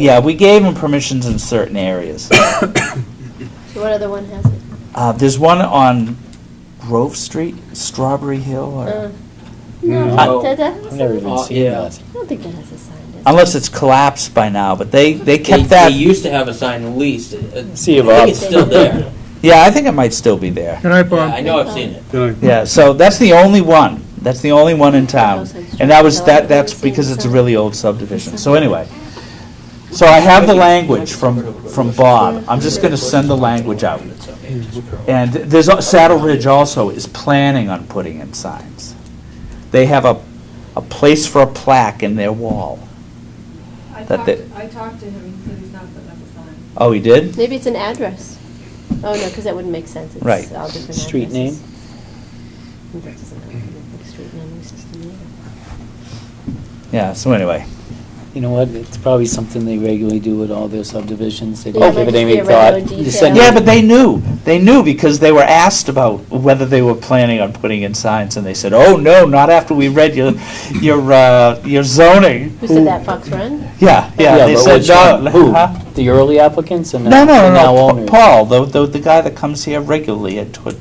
Yeah, we gave them permissions in certain areas. So what other one has it? Uh, there's one on Grove Street, Strawberry Hill, Uh, or, No, No. that, that has I've never a, even Uh, seen yeah. that. I don't think that has a sign. does it? unless it's collapsed by now, but they, they They, kept they that. used to have a sign at least. Uh, Sea of I think Ops. it's still there. Yeah, I think it might still be there. Good night, Yeah, Bob. I know I've seen it. Good night. Yeah, so that's the only one. That's the only one in town. And that was, that, that's because it's a really old subdivision. So anyway. So I have the language from, from Bob. I'm just gonna send the language out. And there's, a- Saddle Ridge also is planning on putting in signs. They have a, a place for a plaque in their wall. I That talked, they- I talked to him, he said he's not putting up a sign. Oh, he did? Maybe it's an address. Oh, no, because that wouldn't make sense. It's Right. all different Street addresses. That doesn't have a big street name uses to me Yeah, so anyway. You know what, it's probably something they regularly do with all their subdivisions, they Yeah, don't it might give just it be any a thought. regular You send detail. Yeah, it- but they knew. They knew because they were asked about whether they were planning on putting in signs, and they said, "Oh no, not after we read your your uh, your zoning." either. Who said that, Fox Run? Yeah, yeah. they but said which one? no. Who? huh? The early applicants and No, now no, no, now no. Pa- owners? Paul, the, the the guy that comes here regularly at to,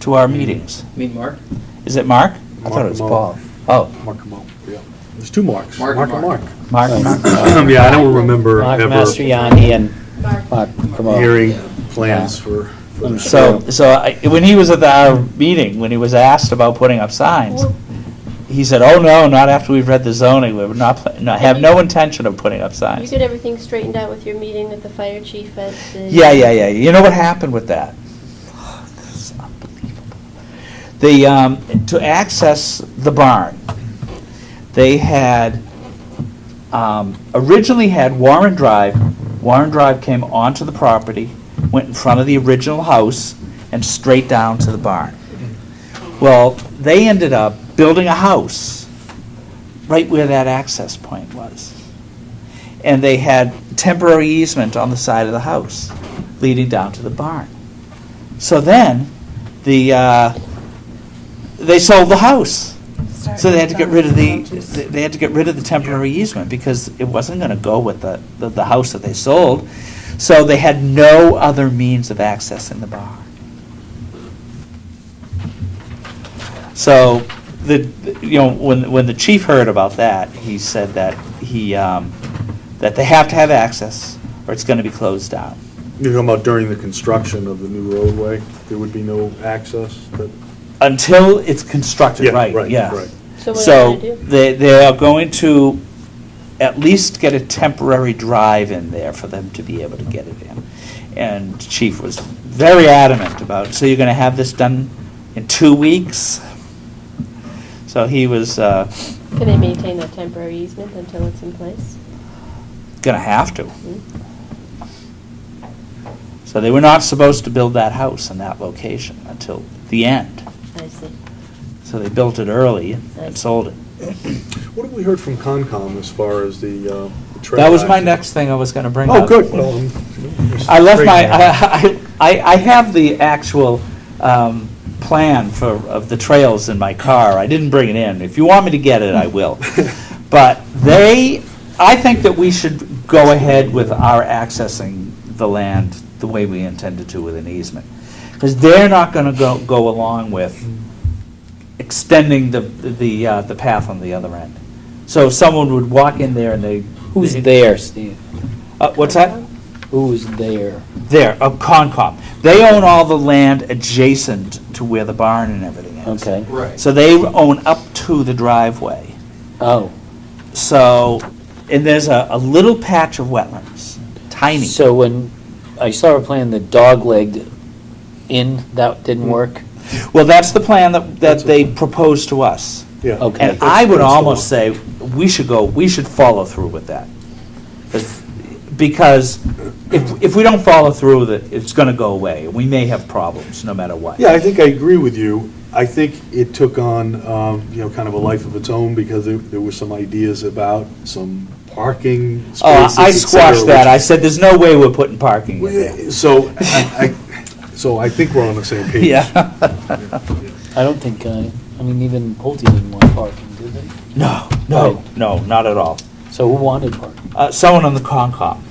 to Mm. our meetings. Mean Mark? Is it Mark? I thought Mark it was Lamont. Paul. Oh, Mark them out, yeah. There's two marks. Mark and Mark. Um, Mark. Mark. Yeah, I don't remember Mark ever Mastriani and Mark, Mark Cremo. hearing plans for. for I'm that. sure. So so I, when he was at the, our meeting, when he was asked about putting up signs. He said, "Oh no, not after we've read the zoning. We're not, pla- no, have no intention of putting up signs." You get everything straightened out with your meeting with the fire chief at the. Yeah, yeah, yeah. You know what happened with that? This is unbelievable. The, um, to access the barn, they had, um, originally had Warren Drive. Warren Drive came onto the property, went in front of the original house, and straight down to the barn. Well, they ended up building a house right where that access point was and they had temporary easement on the side of the house leading down to the barn. So then, the, uh, they sold the house. So they had to get rid of the, they had to get rid of the temporary easement because it wasn't gonna go with the, the, the house that they sold. So they had no other means of accessing the barn. So, the, you know, when, when the chief heard about that, he said that he, um, that they have to have access, or it's gonna be closed down. You're talking about during the construction of the new roadway, there would be no access? that- Until it's constructed, Yeah, right, right, yeah. right. So what are So, you gonna do? they, they are going to at least get a temporary drive in there for them to be able to get it in. And chief was very adamant about, so you're gonna have this done in two weeks? So he was, uh, Can they maintain that temporary easement until it's in place? gonna have to. Hmm? So they were not supposed to build that house in that location until the end. I see. So they built it early and sold it. What have we heard from Concom as far as the uh, the trail? That was my access? next thing I was gonna bring up. Oh, good. Well, I'm- I left my, Great. I, I, I have the actual, um, plan for, of the trails in my car. I didn't bring it in. If you want me to get it, I will. But they, I think that we should go ahead with our accessing the land the way we intended to with an easement. Because they're not gonna go, go along with extending the, the, uh, the path on the other end. So someone would walk in there and they. Who's there, Steve? Uh, what's that? Who's there? There, of Concom. They own all the land adjacent to where the barn and everything is. Okay, Right. So they own up to the driveway. oh. So, and there's a, a little patch of wetlands, tiny. So when, I saw her playing the dog-legged in, that Hmm. didn't work? Well, that's the plan that, that they proposed to us. Yeah. Okay. And I would almost say, we should go, we should follow through with that. 'Cause- Because if, if we don't follow through with it, it's gonna go away. We may have problems, no matter what. Yeah, I think I agree with you. I think it took on, um, you know, kind of a life of its own because there, there were some ideas about some parking spaces, Oh, I et cetera, squashed that. I said, there's no way we're putting parking which- in there. So, I, I- so I think we're on the same page. Yeah. I don't think, uh, I mean, even Pulte didn't want parking, did they? No, no, no, not at all. So who wanted parking? Uh, Someone on the Concom.